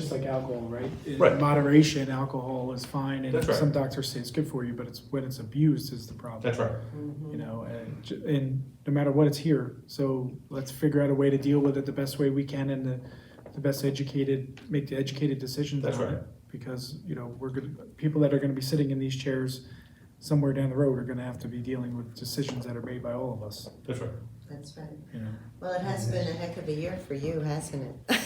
Just like alcohol, right? In Right. Moderation, alcohol is fine, and That's right. some doctors say it's good for you, but it's when it's abused is the problem. That's right. Mm-hmm. You know, and, j- and no matter what, it's here, so let's figure out a way to deal with it the best way we can and the, the best educated, make the educated decisions That's on right. it. Because, you know, we're gonna, people that are gonna be sitting in these chairs somewhere down the road are gonna have to be dealing with decisions that are made by all of us, That's right. That's right. you know? Well, it has been a heck of a year for you, hasn't it?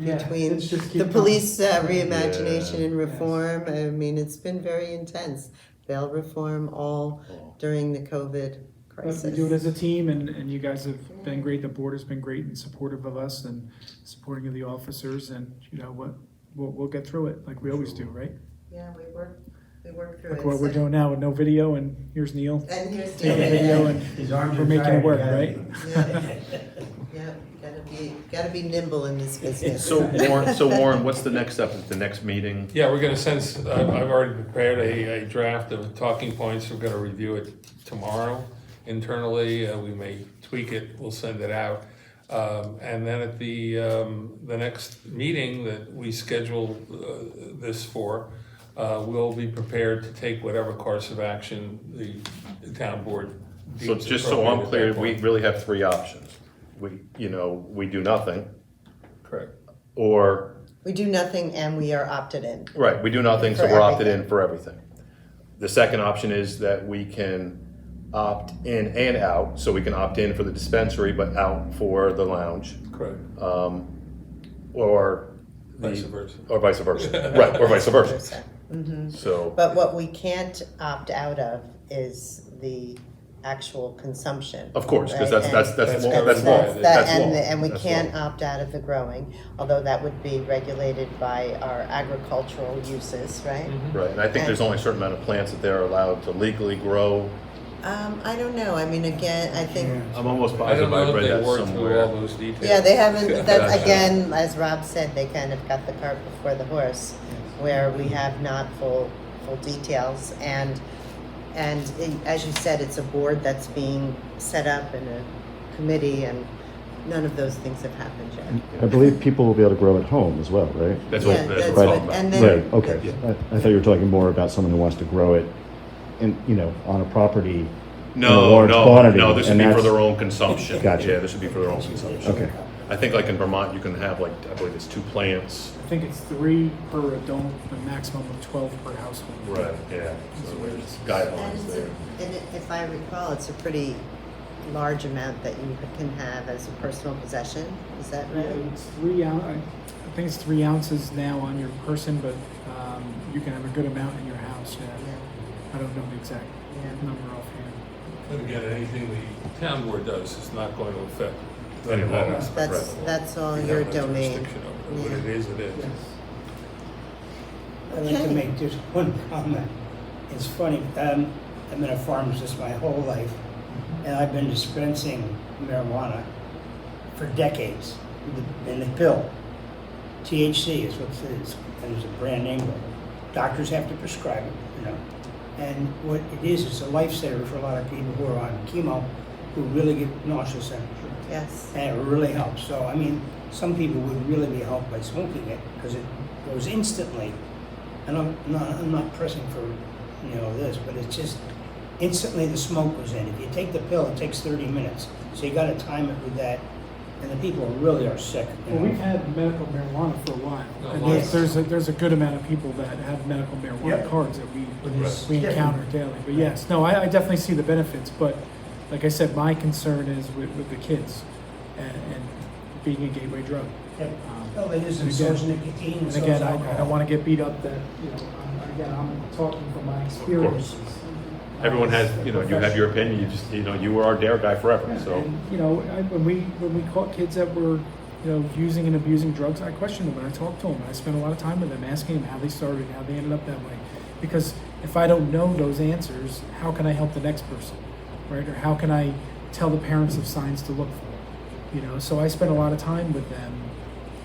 Yeah, Between it's just keep the going. police uh, reimagination and Yeah. reform, I mean, it's been very intense. Bail reform, all during the COVID But crisis. we do it as a team and, and you guys have been great, the board has been great and supportive of us and supporting of the officers and, you know, what, we'll, we'll get through it like we always do, right? Yeah, we work, we work through it. Like what we're So- doing now with no video and here's Neil. And here's Take a video and David. His arms we're are making it tired, work, gotta- right? Yeah, yeah, gotta be, gotta be nimble in this business. So Warren, so Warren, what's the next step? Is the next meeting? Yeah, we're gonna send, s- I've, I've already prepared a, a draft of talking points, we're gonna review it tomorrow internally, uh, we may tweak it, we'll send it out. Um, and then at the, um, the next meeting that we schedule, uh, this for, uh, we'll be prepared to take whatever course of action the, the town board So deems just so I'm appropriate clear, at that we point. really have three options. We, you know, we do nothing, Correct. or, We do nothing and we are opted in. right, we do nothing, so For we're opted everything. in for everything. The second option is that we can opt in and out, so we can opt in for the dispensary, but out for the lounge, Correct, um, or. the- vice versa. Or vice versa, right, or vice versa, Mm-hmm. so. But what we can't opt out of is the actual consumption. Of course, because right? that's, And- that's, that's That's law, covered that's by law, the- that- that's and, law. and we That's can't law. opt out of the growing, although that would be regulated by our agricultural uses, right? Right, and I think there's only a certain amount of plants that they're allowed to legally grow. Um, I don't know. I mean, again, I think I'm almost I positive don't know I if read they that worked through all somewhere. those details. yeah, they haven't. That's Gotcha. again, as Rob said, they kind of got the cart before the horse, where we have not full full details and. And it- as you said, it's a board that's being set up and a committee, and none of those things have happened yet. I believe people will be able to grow at home as well, right? That's what, Yeah, that's that's what what- I'm talking and about. then- Right, okay. I, I thought you were talking more about someone who wants to grow it in, you know, on a property. in a No, large no, quantity, no, this would and be for that's- their own consumption. Gotcha. Yeah, this would be for their own consumption. Okay. I think like in Vermont, you can have like, I believe it's two plants. I think it's three per adult, a maximum of twelve per household. Yeah, so there's And guidelines it's there. a- and it- if I recall, it's a pretty large amount that you can have as a personal possession, is that Yeah, Mm-hmm. right? It's three ounce, I think it's three ounces now on your person, but, um, you can have a good amount in your house, yeah. I don't know the exact Yeah. number offhand. But again, anything the town board does is not going to affect that Any law. aspect. That's, Right. that's all We have your no domain. jurisdiction over it. What it Yeah. is, it is. I'd like to Okay. make just one comment. It's funny, um, I've been a pharmacist my whole life, and I've been dispensing marijuana for decades with the- in the pill. THC is what it is, and there's a brand name. for it. Doctors have to prescribe it, you know. And what it is, it's a lifesaver for a lot of people who are on chemo, who really get nauseous and Yes, and it really helps. So, I mean, some people would really be helped by smoking it because it goes instantly. And I'm not, I'm not pressing for, you know, this, but it's just instantly the smoke goes in. If you take the pill, it takes 30 minutes. So you got to time it with that. And the people really are sick. you Well, know. we've had medical marijuana for a while, Oh, Yeah, and long there's, time. there's a, there's a good amount of people that have medical marijuana Yeah. cards that we, But it's we different. encounter daily, but yes, no, I, I definitely see the benefits, but like I said, my concern is with, with the kids and, and being a gateway drug. Yeah. Um, Well, it is, and and so is again- nicotine, and And so is again, I, I alcohol. don't wanna get beat up that, you know, I'm- again, I'm talking from my experiences. Uh, Everyone has, as a you know, you have your opinion, you just, you know, you were our dare guy forever, so. and, you know, I, when we when we caught kids that were, you know, using and abusing drugs, I questioned them and I talked to them. And I spent a lot of time with them, asking them how they started, how they ended up that way, because if I don't know those answers, how can I help the next person, right? Or how can I tell the parents of signs to look for, you know? So I spent a lot of time with them,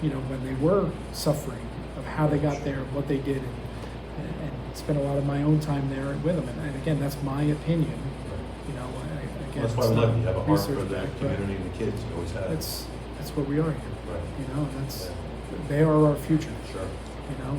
you know, when they were suffering, of how they got there, what they did. And, and spent a lot of my own time there with them, and, and again, that's my opinion. You know, I, again, That's why it's we not love you. You have a heart for research the backed, but- community and the kids. You always have. that's that's what we are here. Right. You know, that's they are our future, Sure. you know?